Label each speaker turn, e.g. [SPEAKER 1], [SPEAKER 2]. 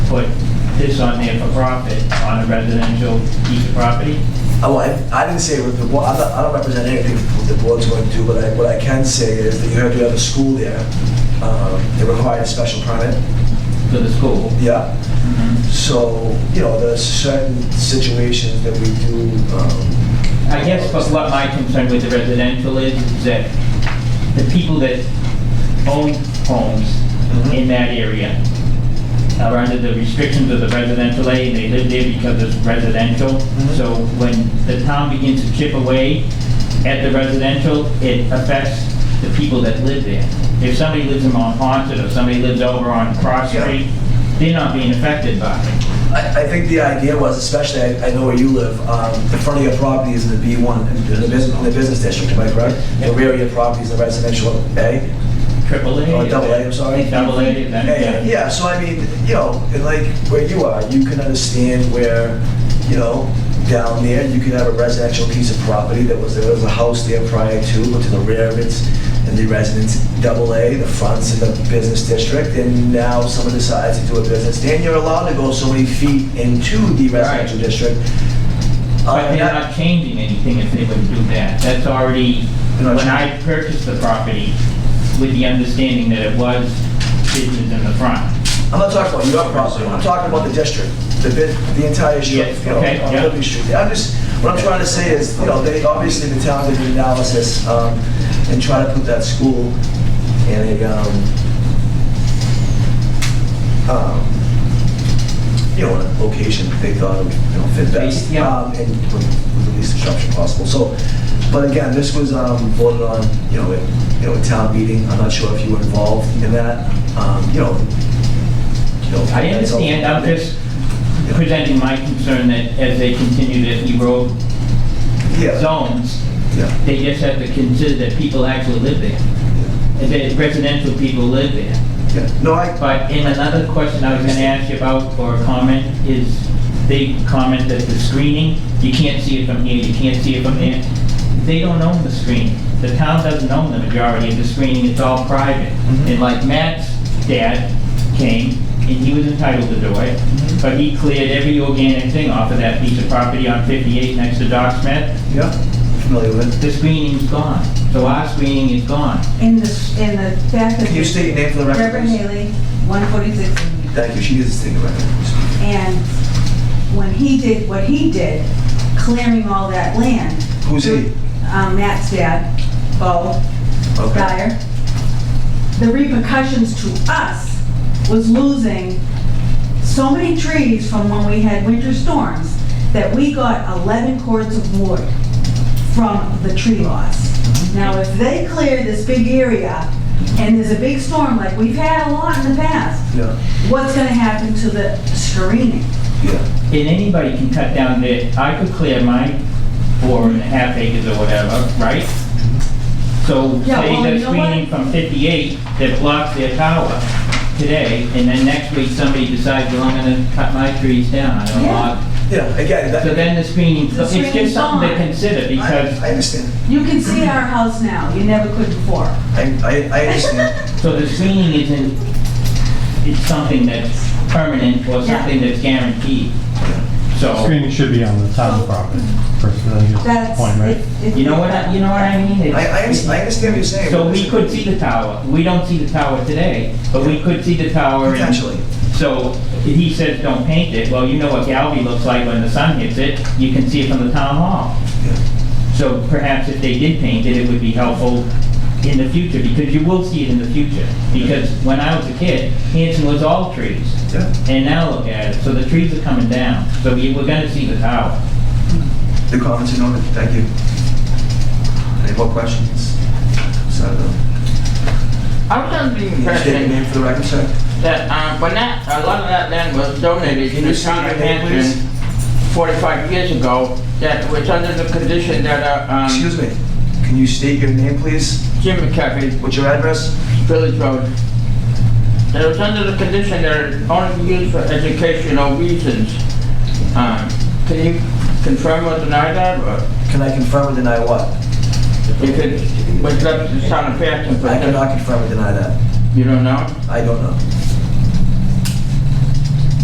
[SPEAKER 1] put this on there for profit on a residential piece of property?
[SPEAKER 2] Oh, I, I didn't say with the, bo- I don't, I don't represent anything what the board's going to do, but I, what I can say is that you have to have a school there. Um, They require a special permit,
[SPEAKER 1] To the school?
[SPEAKER 2] yeah. So, you know, there's certain situations that we do, um,
[SPEAKER 1] I guess but what my concern with the residential is, is that the people that own homes
[SPEAKER 2] Mhm.
[SPEAKER 1] in that area are under the restrictions of the residential A, and they live there because it's residential.
[SPEAKER 2] Mhm.
[SPEAKER 1] So when the town begins to chip away at the residential, it affects the people that live there. If somebody lives in Mount Haunted, or somebody lives over on Cross
[SPEAKER 2] Yeah.
[SPEAKER 1] Street, they're not being affected by it.
[SPEAKER 2] I, I think the idea was, especially, I, I know where you live, um, the front of your property is in the B1, in the business, in the business district, am I correct? The rear of your property is the residential A.
[SPEAKER 1] Triple A.
[SPEAKER 2] Oh, double A, I'm sorry.
[SPEAKER 1] Double A, then.
[SPEAKER 2] Yeah, yeah, yeah, so I mean, you know, and like where you are, you can understand where, you know, down there, you could have a residential piece of property that was, there was a house there prior to, but to the rear of it's, and the residents, double A, the front's in the business district, and now someone decides to do a business, then you're allowed to go so many feet into the residential
[SPEAKER 1] Right.
[SPEAKER 2] district.
[SPEAKER 1] But
[SPEAKER 2] Uh,
[SPEAKER 1] they're not changing anything if they would do that. That's already,
[SPEAKER 2] They're not
[SPEAKER 1] when I purchased the property, with the understanding that it was business in the front.
[SPEAKER 2] I'm not talking about your property, I'm talking about the district, the bit, the entire
[SPEAKER 1] Yeah,
[SPEAKER 2] district, you know,
[SPEAKER 1] okay,
[SPEAKER 2] on
[SPEAKER 1] yeah.
[SPEAKER 2] Liberty Street. I'm just, what I'm trying to say is, you know, they, obviously the town did an analysis, um, and try to put that school in a, um, um, you know, in a location that they thought would, you know, fit best.
[SPEAKER 1] Yeah.
[SPEAKER 2] um, And with with the least disruption possible, so, but again, this was, um, voted on, you know, at, you know, at town meeting, I'm not sure if you were involved in that, um, you know, you know,
[SPEAKER 1] I
[SPEAKER 2] that's all-
[SPEAKER 1] understand, I'm just
[SPEAKER 2] Yeah.
[SPEAKER 1] presenting my concern that as they continue to erode
[SPEAKER 2] Yeah,
[SPEAKER 1] zones,
[SPEAKER 2] yeah,
[SPEAKER 1] they just have to consider that people actually live there,
[SPEAKER 2] yeah,
[SPEAKER 1] and that residential people live there.
[SPEAKER 2] yeah. No, I,
[SPEAKER 1] But in another question I was gonna ask you about, or a comment, is they comment that the screening, you can't see it from here, you can't see it from there. They don't own the screening. The town doesn't own the majority of the screening, it's all private.
[SPEAKER 2] Mhm.
[SPEAKER 1] And like Matt's dad came, and he was entitled to do it,
[SPEAKER 2] Mhm.
[SPEAKER 1] but he cleared every organic thing off of that piece of property on 58 next to Doc Smith.
[SPEAKER 2] yeah, familiar with it.
[SPEAKER 1] The screening's gone, so our screening is gone.
[SPEAKER 3] In the, in the back of.
[SPEAKER 2] Can you state your name for the record,
[SPEAKER 3] Reverend
[SPEAKER 2] please?
[SPEAKER 3] Haley, 146.
[SPEAKER 2] Thank you, she is stating the record.
[SPEAKER 3] And when he did what he did, clearing all that land.
[SPEAKER 2] Who's he?
[SPEAKER 3] Um, Matt's dad, Bo
[SPEAKER 2] Okay,
[SPEAKER 3] Dyer. The repercussions to us was losing so many trees from when we had winter storms that we got 11 cords of wood from the tree loss.
[SPEAKER 4] Mm-hmm.
[SPEAKER 3] Now, if they clear this big area and there's a big storm like we've had a lot in the past,
[SPEAKER 2] yeah,
[SPEAKER 3] what's gonna happen to the screening?
[SPEAKER 2] yeah,
[SPEAKER 1] And anybody can cut down their, I could clear my four and a half acres or whatever, right? So
[SPEAKER 3] Yeah,
[SPEAKER 1] say
[SPEAKER 3] well,
[SPEAKER 1] they're
[SPEAKER 3] you know what?
[SPEAKER 1] screening from 58 that blocks their tower today, and then next week somebody decides, well, I'm gonna cut my trees down, I don't
[SPEAKER 3] Yeah.
[SPEAKER 1] want.
[SPEAKER 2] yeah, again,
[SPEAKER 1] So
[SPEAKER 2] that,
[SPEAKER 1] then the screening,
[SPEAKER 3] The
[SPEAKER 1] it's just
[SPEAKER 3] screening's
[SPEAKER 1] something to
[SPEAKER 3] gone.
[SPEAKER 1] consider, because,
[SPEAKER 2] I, I understand,
[SPEAKER 3] You can
[SPEAKER 4] Mm-hmm.
[SPEAKER 3] see our house now, you never could before.
[SPEAKER 2] I, I, I understand,
[SPEAKER 1] so the screening isn't, it's something that's permanent or
[SPEAKER 3] Yeah.
[SPEAKER 1] something that's guaranteed. So,
[SPEAKER 4] Screening should be on the town property, first, I think is the
[SPEAKER 3] That's.
[SPEAKER 4] point, right?
[SPEAKER 3] it- it-
[SPEAKER 1] you know what, I- you know what I mean? It's-
[SPEAKER 2] I, I understand I understand what you're saying.
[SPEAKER 1] So
[SPEAKER 2] but
[SPEAKER 1] we
[SPEAKER 2] this-
[SPEAKER 1] could see the tower. We don't see the tower today, but we could see the tower. and-
[SPEAKER 2] Potentially.
[SPEAKER 1] So he says, don't paint it. Well, you know what Galvey looks like when the sun hits it. You can see it from the town hall.
[SPEAKER 2] Yeah.
[SPEAKER 1] So perhaps if they did paint it, it would be helpful in the future, because you will see it in the future. Because when I was a kid, Hanson was all trees.
[SPEAKER 2] Yeah.
[SPEAKER 1] And now look at it. So the trees are coming down. So we- we're gonna see the tower.
[SPEAKER 2] The comments are noted, thank you. Any more questions? So, uh,
[SPEAKER 5] I was under the
[SPEAKER 2] can you state your
[SPEAKER 5] impression
[SPEAKER 2] name for the record, sir?
[SPEAKER 5] that um, when that, a lot of that land was donated
[SPEAKER 2] Can
[SPEAKER 5] to
[SPEAKER 2] you
[SPEAKER 5] the
[SPEAKER 2] state
[SPEAKER 5] town
[SPEAKER 2] your
[SPEAKER 5] of
[SPEAKER 2] name, please?
[SPEAKER 5] Hanson 45 years ago, that was under the condition that uh, um,
[SPEAKER 2] Excuse me, can you state your name, please?
[SPEAKER 5] Jim McCaffrey,
[SPEAKER 2] What's your address?
[SPEAKER 5] Village Road, that it was under the condition that it only be used for educational reasons. Um, Can you confirm or deny that, or
[SPEAKER 2] Can I confirm or deny what?
[SPEAKER 5] if it was left to the town of Hanson? for-
[SPEAKER 2] I cannot confirm or deny that.
[SPEAKER 5] You don't know?
[SPEAKER 2] I don't know.